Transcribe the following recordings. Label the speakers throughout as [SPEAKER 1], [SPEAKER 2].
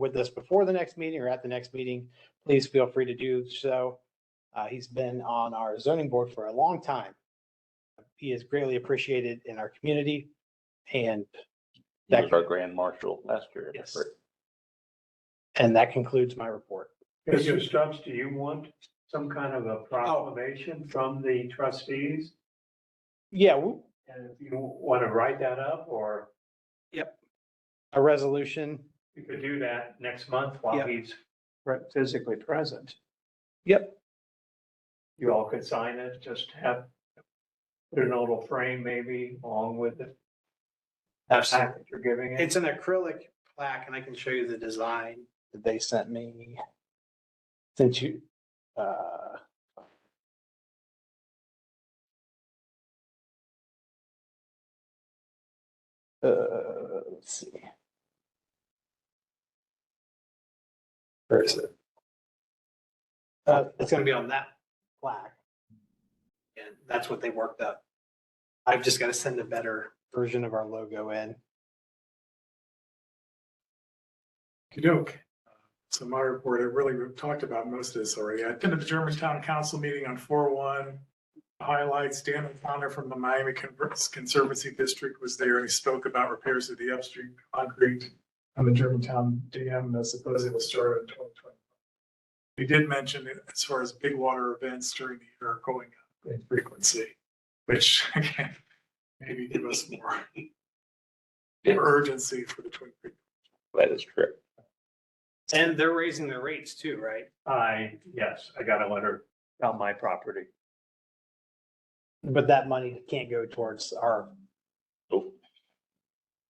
[SPEAKER 1] with us before the next meeting or at the next meeting, please feel free to do so. Uh, He's been on our zoning board for a long time. He is greatly appreciated in our community and
[SPEAKER 2] He
[SPEAKER 1] That-
[SPEAKER 2] was our grand marshal last year.
[SPEAKER 1] Yes. And that concludes my report.
[SPEAKER 3] Mr. Stubbs, do you want some kind of a proclamation from the trustees?
[SPEAKER 1] Yeah, w-
[SPEAKER 3] And if you want to write that up, or
[SPEAKER 1] a resolution.
[SPEAKER 3] you could do that next month while
[SPEAKER 1] Yeah.
[SPEAKER 3] he's pre- physically present.
[SPEAKER 1] Yep.
[SPEAKER 3] You all could sign it, just have, put an little frame maybe along with the
[SPEAKER 1] Absolutely.
[SPEAKER 3] packet you're giving it.
[SPEAKER 1] It's an acrylic plaque and I can show you the design that they sent me. Sent you, uh. Uh, let's see. Where is it? Uh, it's gonna be on that plaque. And that's what they worked up. I've just gotta send a better version of our logo in.
[SPEAKER 4] Kadoke. Uh, So my report, I really we've talked about most of this already. I attended the Germantown Council meeting on four one. Highlights, Dan O'Connor from the Miami Conver- Conservancy District was there and he spoke about repairs to the upstream concrete on the Germantown Dam that supposedly was started in twenty twenty. He did mention it as far as big water events during the year are going up in frequency, which again, maybe give us more urgency for the Twin Creek
[SPEAKER 2] That is correct.
[SPEAKER 1] And they're raising their rates too, right?
[SPEAKER 3] I, yes, I got a letter on my property.
[SPEAKER 1] But that money can't go towards our.
[SPEAKER 2] Nope.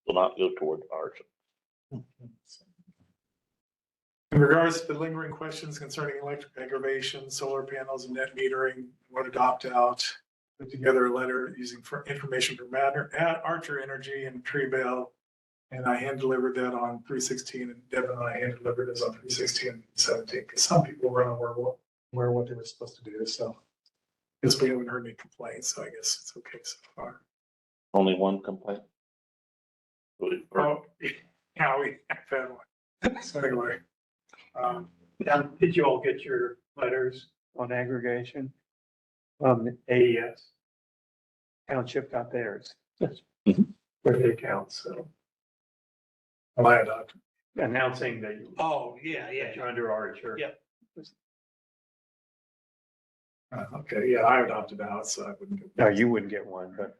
[SPEAKER 2] Will not go toward ours.
[SPEAKER 4] In regards to the lingering questions concerning electric aggravation, solar panels and net metering, what adopt out, put together a letter using for information from Matter, at Archer Energy and Tree Bell. And I hand delivered that on three sixteen and Devin and I hand delivered this on three sixteen and seventeen, because some people were unaware what, where what they were supposed to do, so. Guess we haven't heard any complaints, so I guess it's okay so far.
[SPEAKER 2] Only one complaint. Would- or-
[SPEAKER 4] Oh, yeah, we have had one. So anyway. Um,
[SPEAKER 3] Now, did you all get your letters on aggregation? Um, AES. Township got theirs.
[SPEAKER 2] Yes. Mhm.
[SPEAKER 3] Where they count, so
[SPEAKER 4] my adopt.
[SPEAKER 3] announcing that you-
[SPEAKER 1] Oh, yeah,
[SPEAKER 3] that you're under our church.
[SPEAKER 1] Yeah.
[SPEAKER 4] Uh, Okay, yeah, I would opted out, so I wouldn't.
[SPEAKER 3] No, you wouldn't get one, but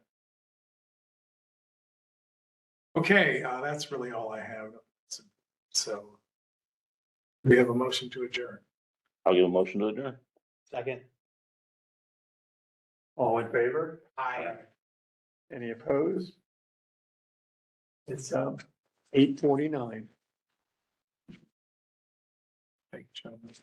[SPEAKER 4] Okay, uh, that's really all I have. So we have a motion to adjourn.
[SPEAKER 2] I'll give a motion to adjourn.
[SPEAKER 1] Second.
[SPEAKER 3] all in favor?
[SPEAKER 1] I.
[SPEAKER 3] Any opposed? It's, um, eight forty-nine.
[SPEAKER 4] Thank you, gentlemen.